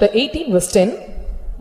Chapter 18 verse 10,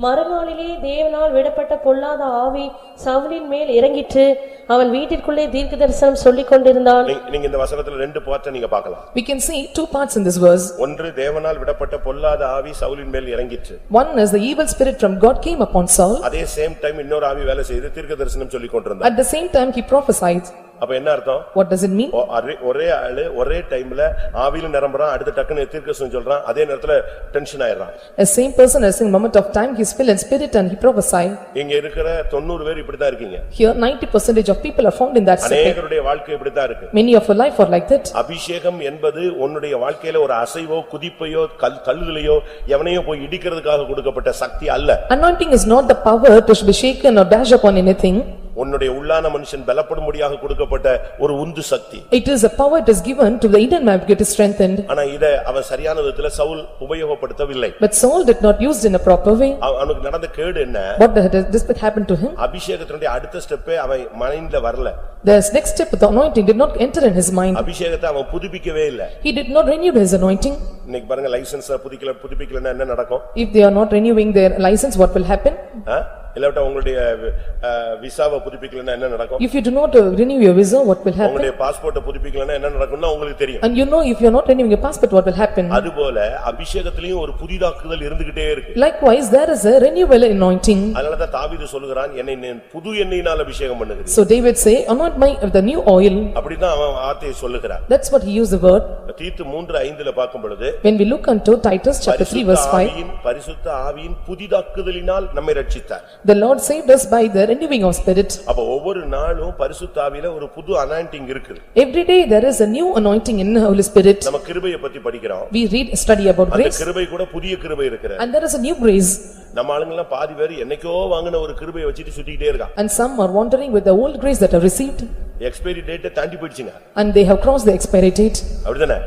மறுநாளிலே தேவனால் விடப்பட்ட பொல்லாத ஆவி சவுலின் மேல் இறங்கிற்று அவன் வீட்டிற்குள்ளே தீர்க்க தரிசனம் சொல்லிக் கொண்டிருந்தான் நீ- நீங்க இந்த வசனத்துல ரெண்டு பார்ட்டை நீங்க பார்க்கலாம் we can see two parts in this verse. ஒன்று தேவனால் விடப்பட்ட பொல்லாத ஆவி சவுலின் மேல் இறங்கிற்று One is the evil spirit from God came upon Saul, அதே சேம் டைம் இன்னொரு ஆவி வேலை செய்து தீர்க்க தரிசனம் சொல்லி கொண்டிருந்தான் at the same time he prophesied. அப்ப என்ன அர்த்தம் What does it mean? ஒ- அரே- ஒரே ஆளு ஒரே டைம்ல ஆவியில நிரம்புறான் அடுத்த டக்குன்னு தீர்க்க தரிசனம் சொல்றான் அதே நேரத்துல டென்ஷன் ஆயிடுறான் A same person as in moment of time he is filled in spirit and he prophesied. இங்க இருக்கிற தொண்ணூறு பேர் இப்படித்தான் இருக்கீங்க Here ninety percentage of people are found in that spirit. அநேகருடைய வாழ்க்கை இப்படித்தான் இருக்கு Many of your life are like that. அபிஷேகம் என்பது உன்னுடைய வாழ்க்கையில ஒரு அசைவோ குதிப்பையோ கல் தள்ளுதலையோ எவனையோ போய் இடிக்கிறதுக்காக கொடுக்கப்பட்ட சக்தி அல்ல Anointing is not the power to be shaken or dash upon anything. உன்னுடைய உள்ளான மனுஷன் பலப்படும்படியாக கொடுக்கப்பட்ட ஒரு உந்து சக்தி It is a power that is given to the inner man to get strengthened. ஆனா இத அவன் சரியான விதத்துல Saul உபயோகப்படுத்தவில்லை But Saul did not use it in a proper way. அவ- அவனுக்கு நடந்த கேடு என்ன What had this happened to him? அபிஷேகத்தினுடைய அடுத்த ஸ்டெப்பே அவன் மைண்ட்ல வரல The next step of the anointing did not enter in his mind. அபிஷேகத்தை அவன் புதுப்பிக்கவே இல்ல He did not renew his anointing. இன்னைக்கு பாருங்க லைசன்ஸ் புதுப்பிக்கல புதுப்பிக்கலன்னா என்ன நடக்கும் If they are not renewing their license, what will happen? ஆ? இல்லாவிட்டா உங்களுடைய அஹ், விசாவை புதுப்பிக்கலன்னா என்ன நடக்கும் If you do not uh, renew your visa, what will happen? உங்களுடைய பாஸ்போர்ட்டை புதுப்பிக்கலன்னா என்ன நடக்கும்னு உங்களுக்கு தெரியும் And you know, if you are not renewing your passport, what will happen? அதுபோல அபிஷேகத்திலயும் ஒரு புதிதாக்குதல் இருந்துகிட்டே இருக்கு Likewise, there is a renewal anointing. அதனாலதான் தாவீது சொல்லுகிறான் என்னை நீ புது எண்ணெயினால் அபிஷேகம் பண்ணுகிறேன் So David say, anoint my, with the new oil. அப்படிதான் அவன் வார்த்தையை சொல்லுகிறான் That's what he used the word. தீத்து மூன்று ஐந்துல பார்க்கும் பொழுது When we look unto Titus chapter three பரிசுத்த verse five, ஆவியின் பரிசுத்த ஆவியின் புதிதாக்குதலினால் நம்மை ரட்சித்தார் the Lord saved us by the renewing of spirit. அப்ப ஒவ்வொரு நாளும் பரிசுத்த ஆவியில ஒரு புது அனாயிண்டிங் இருக்குது Every day, there is a new anointing in the Holy Spirit. நம்ம கிருபையை பத்தி படிக்கிறோம் We read, study about அந்த grace கிருபை கூட புதிய கிருபை இருக்கிற and there is a new grace. நம்ம ஆளுங்கெல்லாம் பாதி பேர் என்னைக்கோ வாங்கின ஒரு கிருபையை வச்சுட்டு சுத்திக்கிட்டே இருக்கான் And some are wandering with the old grace that are received expiry டேட்டை தாண்டி போயிடுச்சுங்க and they have crossed the expiry date. அப்படிதானே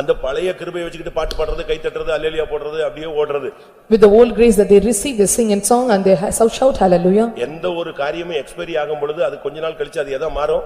அந்த பழைய கிருபையை வச்சுக்கிட்டு பாட்டு பாடுறது கை தட்டுறது அல்லேலியா போடுறது அப்படியே ஓடுறது With the old grace that they receive, they sing and song and they ha- shout hallelujah. எந்த ஒரு காரியமும் எக்ஸ்பைரி ஆகும் பொழுது அது கொஞ்ச நாள் கழிச்சு அது எதா மாறும்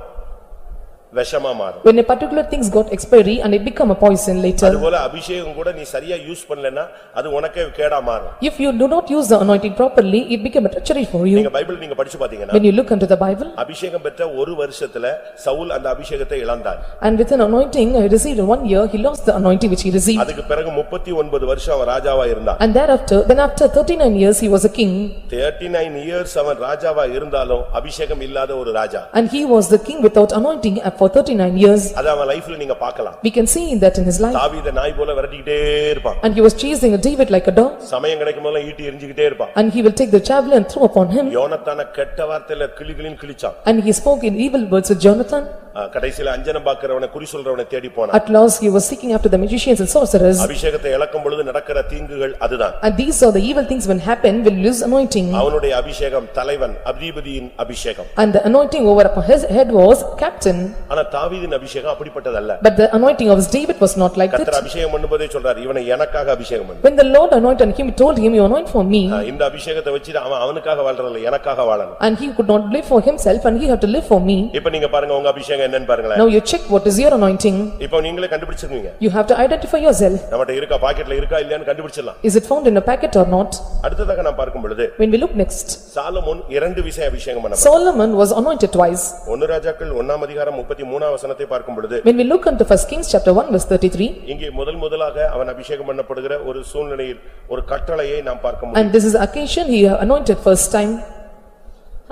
விஷமா மாறும் When a particular things got expiry and it become a poison later. அதுபோல அபிஷேகம் கூட நீ சரியா யூஸ் பண்ணலன்னா அது உனக்கே கேடா மாறும் If you do not use the anointing properly, it become a treachery for you. நீங்க பைபிள் நீங்க படிச்சு பாத்தீங்கன்னா When you look into the Bible அபிஷேகம் பெற்ற ஒரு வருஷத்துல சவுல் அந்த அபிஷேகத்தை இழந்தார் and with an anointing he received in one year, he lost the anointing which he received. அதுக்கு பிறகு முப்பத்தி ஒன்பது வருஷம் அவன் ராஜாவா இருந்தான் And thereafter, then after thirty-nine years, he was a king thirty nine years அவன் ராஜாவா இருந்தாலும் அபிஷேகம் இல்லாத ஒரு ராஜா and he was the king without anointing for thirty-nine years. அது அவன் லைஃப்ல நீங்க பார்க்கலாம் We can see that in his life. தாவீத நாய் போல விரட்டிக்கிட்டே இருப்பான் And he was chasing David like a dog சமயம் கிடைக்கும் போதெல்லாம் ஈட்டி எரிஞ்சுக்கிட்டே இருப்பான் and he will take the javelin and throw upon him. யோனத்தான கெட்ட வார்த்தையில கிளிகளின் கிழிச்சான் And he spoke in evil words with Jonathan. அஹ் கடைசியில அஞ்சனம் பாக்குறவனை குறி சொல்றவனை தேடி போனான் At last, he was seeking after the magicians and sorcerers. அபிஷேகத்தை இழக்கும் பொழுது நடக்கிற தீங்குகள் அதுதான் And these are the evil things when happen, will lose anointing. அவனுடைய அபிஷேகம் தலைவன் அதிபதியின் அபிஷேகம் And the anointing over upon his head was captain. ஆனா தாவீதின் அபிஷேகம் அப்படிப்பட்டதல்ல But the anointing of David was not like கர்த்தர் that. அபிஷேகம் பண்ணும்போதே சொல்றாரு இவனை எனக்காக அபிஷேகம் பண்ணு When the Lord anointed him, he told him, "You anoint for me." அஹ் இந்த அபிஷேகத்தை வச்சு அவன் அவனுக்காக வாழ்றதில்ல எனக்காக வாழணும் And he could not live for himself and he had to live for me. இப்ப நீங்க பாருங்க உங்க அபிஷேகம் என்னன்னு பாருங்களேன் Now you check what is your anointing. இப்ப நீங்களே கண்டுபிடிச்சிருக்கீங்க You have to identify yourself. நம்மகிட்ட இருக்கா பாக்கெட்ல இருக்கா இல்லையான்னு கண்டுபிடிச்சிடலாம் Is it found in a packet or not? அடுத்ததாக நான் பார்க்கும் பொழுது When we look next, சாலமோன் இரண்டு விஷயம் அபிஷேகம் பண்ண Solomon was anointed twice. ஒன்னு ராஜாக்கள் ஒன்னாம் அதிகாரம் முப்பத்தி மூணாம் வசனத்தை பார்க்கும் பொழுது When we look unto first Kings chapter one verse thirty-three, இங்கே முதல் முதலாக அவன் அபிஷேகம் பண்ணப்படுகிற ஒரு சூழ்நிலையில் ஒரு கட்டளையை நாம் பார்க்க முடியும் and this is the occasion he anointed first time.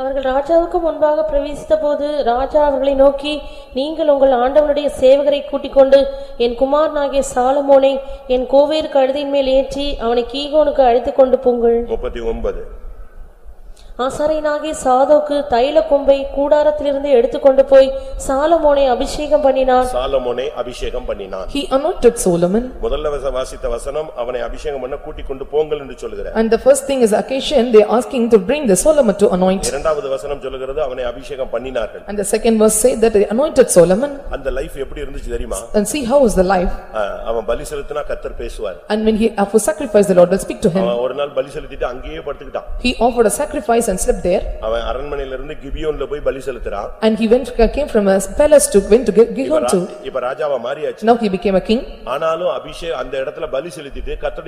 அவர்கள் ராஜாவுக்கு முன்பாக பிரவேசித்தபோது ராஜா அவர்களை நோக்கி நீங்கள் உங்கள் ஆண்டவனுடைய சேவகரை கூட்டிக் கொண்டு என் குமாரனாகிய சாலமோனை என் கோவேருக்கு கழுதின் மேல் ஏற்றி அவனை கீகோனுக்கு அழைத்துக் கொண்டு போங்கள் முப்பத்தி ஒன்பது ஆசாரியனாகிய சாதோக்கு தைல கொம்பை கூடாரத்திலிருந்து எடுத்துக்கொண்டு போய் சாலமோனை அபிஷேகம் பண்ணினான் சாலமோனை அபிஷேகம் பண்ணினான் He anointed Solomon. முதல்ல வச- வாசித்த வசனம் அவனை அபிஷேகம் பண்ண கூட்டிக் கொண்டு போங்கள் என்று சொல்லுகிறார் And the first thing is occasion, they are asking to bring the Solomon to anoint. இரண்டாவது வசனம் சொல்லுகிறது அவனை அபிஷேகம் பண்ணினார்கள் And the second verse say that they anointed Solomon அந்த லைஃப் எப்படி இருந்துச்சு தெரியுமா and see how is the life. அஹ், அவன் பலி செலுத்தினா கத்தர் பேசுவார் And when he offered sacrifice, the Lord will speak to him. அவன் ஒரு நாள் பலி செலுத்திட்டு அங்கேயே படுத்துக்கிட்டான் He offered a sacrifice and slept there. அவன் அரண்மனையில இருந்து கிபியோன்ல போய் பலி செலுத்துறான் And he went, came from a palace to, went to Gi- Gihon to. இப்ப ராஜாவா மாறியாச்சு Now he became a king. ஆனாலும் அபிஷேக் அந்த இடத்துல பலி செலுத்திட்டு கத்தர்